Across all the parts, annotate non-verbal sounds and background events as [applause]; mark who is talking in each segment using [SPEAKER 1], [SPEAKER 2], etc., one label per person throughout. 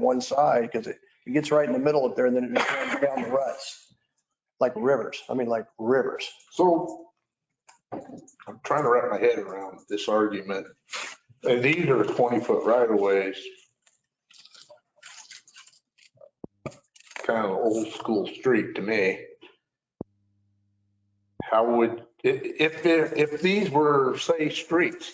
[SPEAKER 1] one side because it, it gets right in the middle up there and then it just runs down the ruts. Like rivers. I mean, like rivers.
[SPEAKER 2] So I'm trying to wrap my head around this argument. And these are 20-foot right-of-ways. Kind of old-school street to me. How would, i- if, there- if these were, say, streets,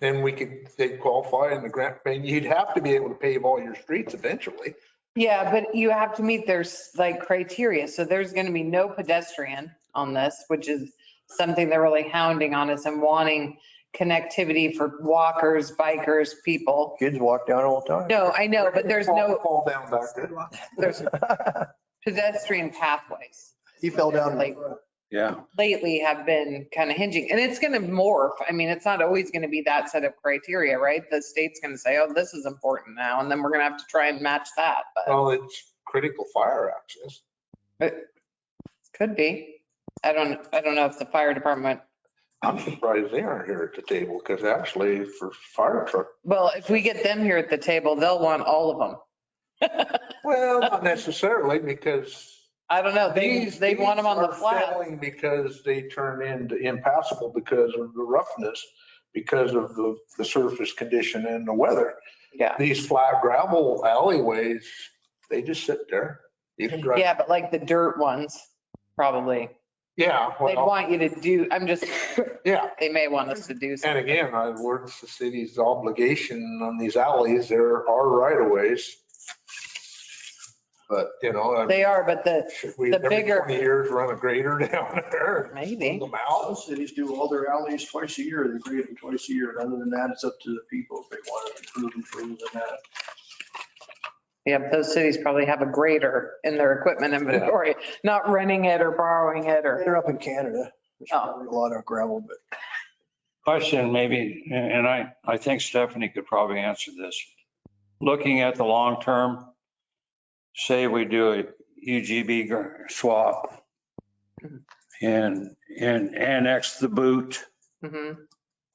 [SPEAKER 2] then we could, they'd qualify in the grant, and you'd have to be able to pave all your streets eventually.
[SPEAKER 3] Yeah, but you have to meet their like criteria. So there's going to be no pedestrian on this, which is something they're really hounding on us and wanting connectivity for walkers, bikers, people.
[SPEAKER 1] Kids walk down all the time.
[SPEAKER 3] No, I know, but there's no,
[SPEAKER 2] Fall down back there.
[SPEAKER 3] there's pedestrian pathways.
[SPEAKER 1] [laughs] He fell down.
[SPEAKER 3] Like
[SPEAKER 4] Yeah.
[SPEAKER 3] lately have been kind of hinging and it's going to morph. I mean, it's not always going to be that set of criteria, right? The state's going to say, oh, this is important now. And then we're going to have to try and match that, but
[SPEAKER 2] Well, it's critical fire access.
[SPEAKER 3] could be. I don't, I don't know if the fire department
[SPEAKER 2] I'm surprised they aren't here at the table because actually for fire truck,
[SPEAKER 3] Well, if we get them here at the table, they'll want all of them.
[SPEAKER 2] well, not necessarily because.
[SPEAKER 3] I don't know. They,
[SPEAKER 2] these-
[SPEAKER 3] they want them on
[SPEAKER 2] these
[SPEAKER 3] the
[SPEAKER 2] are
[SPEAKER 3] flat.
[SPEAKER 2] failing Because they turn into impassable because of the roughness, because of the, the surface condition and the weather.
[SPEAKER 3] Yeah.
[SPEAKER 2] These flat gravel alleyways, they just sit there. You can drive.
[SPEAKER 3] Yeah, but like the dirt ones, probably.
[SPEAKER 2] Yeah,
[SPEAKER 3] They'd
[SPEAKER 2] well,
[SPEAKER 3] want you to do, I'm just,
[SPEAKER 2] [laughs] yeah.
[SPEAKER 3] they may want us to do
[SPEAKER 2] And
[SPEAKER 3] something.
[SPEAKER 2] again, I, where's the city's obligation on these alleys? There are right of ways. But, you know. I-
[SPEAKER 3] They are, but the,
[SPEAKER 2] Should we,
[SPEAKER 3] The
[SPEAKER 2] every
[SPEAKER 3] bigger-
[SPEAKER 2] 20 years, run a grader [laughs] down there?
[SPEAKER 3] Maybe.
[SPEAKER 2] Pull them out?
[SPEAKER 1] Some cities do all their alleys twice a year, they grade them twice a year. Other than that, it's up to the people if they want to improve, improve and that.
[SPEAKER 3] yeah, but those cities probably have a grader in their equipment inventory, not renting it or borrowing it or,
[SPEAKER 1] They're up in Canada. There's
[SPEAKER 3] Oh.
[SPEAKER 1] probably a lot of gravel, but
[SPEAKER 4] Question maybe, and I, I think Stephanie could probably answer this. Looking at the long term, say we do a UGB gr- swap and, and annex the boot
[SPEAKER 3] Mhm.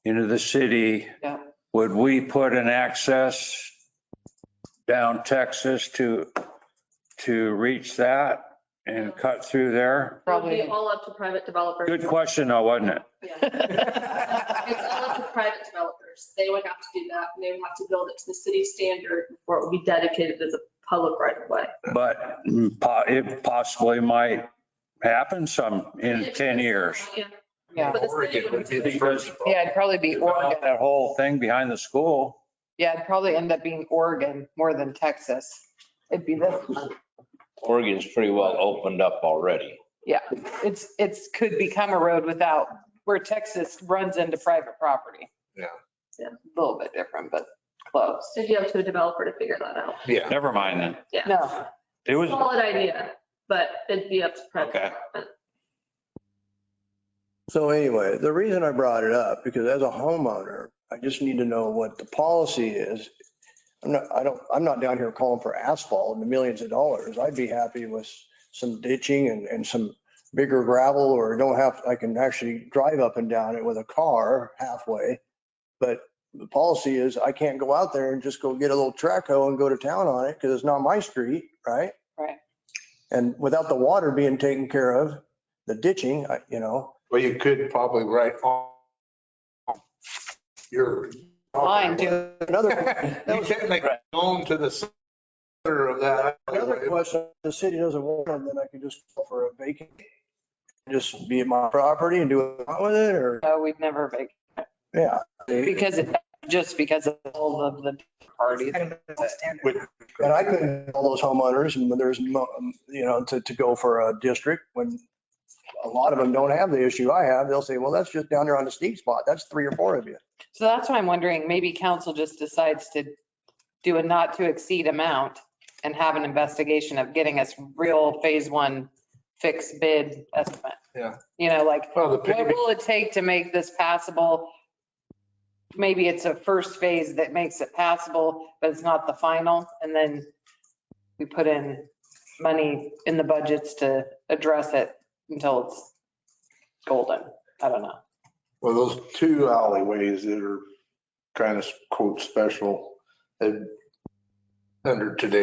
[SPEAKER 4] into the city.
[SPEAKER 3] Yeah.
[SPEAKER 4] Would we put an access down Texas to, to reach that and cut through there?
[SPEAKER 5] It would
[SPEAKER 3] probably.
[SPEAKER 5] be all up to private developers.
[SPEAKER 4] Good question though, wasn't it?
[SPEAKER 5] Yeah. It's
[SPEAKER 3] [laughs]
[SPEAKER 5] all up to private developers. They would have to do that and they would have to build it to the city standard before it would be dedicated as a public right of way.
[SPEAKER 4] But po- it possibly might happen some in 10 years.
[SPEAKER 5] Yeah.
[SPEAKER 3] Yeah.
[SPEAKER 5] But the city
[SPEAKER 2] Oregon
[SPEAKER 5] would
[SPEAKER 2] would be the
[SPEAKER 5] have to-
[SPEAKER 2] first.
[SPEAKER 3] [laughs] Yeah, it'd probably be Oregon.
[SPEAKER 4] That whole thing behind the school.
[SPEAKER 3] Yeah, it'd probably end up being Oregon more than Texas. It'd be this one.
[SPEAKER 6] Oregon's pretty well opened up already.
[SPEAKER 3] it's, it's, could become a road without, where Texas runs into private property.
[SPEAKER 2] Yeah.
[SPEAKER 5] Yeah.
[SPEAKER 3] A Little bit different, but close.
[SPEAKER 5] It'd be up to a developer to figure that out.
[SPEAKER 2] Yeah,
[SPEAKER 4] Never mind then.
[SPEAKER 3] No,
[SPEAKER 4] It was,
[SPEAKER 5] Solid idea, but it'd be up to private.
[SPEAKER 4] Okay.
[SPEAKER 5] development.
[SPEAKER 1] So anyway, the reason I brought it up, because as a homeowner, I just need to know what the policy is. I'm not, I don't, I'm not down here calling for asphalt and millions of dollars. I'd be happy with some ditching and, and some bigger gravel or don't have, I can actually drive up and down it with a car halfway. But the policy is I can't go out there and just go get a little track hoe and go to town on it because it's not my street, right?
[SPEAKER 3] Right.
[SPEAKER 1] And without the water being taken care of, the ditching, I- you know,
[SPEAKER 2] well, you could probably write on your.
[SPEAKER 3] mine too.
[SPEAKER 1] Another,
[SPEAKER 2] [laughs] You technically own to the center of that.
[SPEAKER 1] another question, if the city doesn't want them, then I can just go for a vacant, just be my property and do what I want with it, or,
[SPEAKER 3] No, we'd never make,
[SPEAKER 1] yeah. And
[SPEAKER 3] because, it- just because of all of the parties.
[SPEAKER 1] I couldn't, tell those homeowners, and there's, mo- um, you know, to, to go for a district, when a lot of them don't have the issue I have, they'll say, well, that's just down there on the steep spot, that's three or four of you.
[SPEAKER 3] So that's why I'm wondering, maybe council just decides to do a not to exceed amount and have an investigation of getting us real phase one fixed bid estimate.
[SPEAKER 2] Yeah.
[SPEAKER 3] You know, like
[SPEAKER 2] Well, the
[SPEAKER 3] What
[SPEAKER 2] paving,
[SPEAKER 3] will it take to make this passable? Maybe it's a first phase that makes it passable, but it's not the final. And then we put in money in the budgets to address it until it's golden. I don't know.
[SPEAKER 2] well, those two alleyways that are kind of quote special, and under today.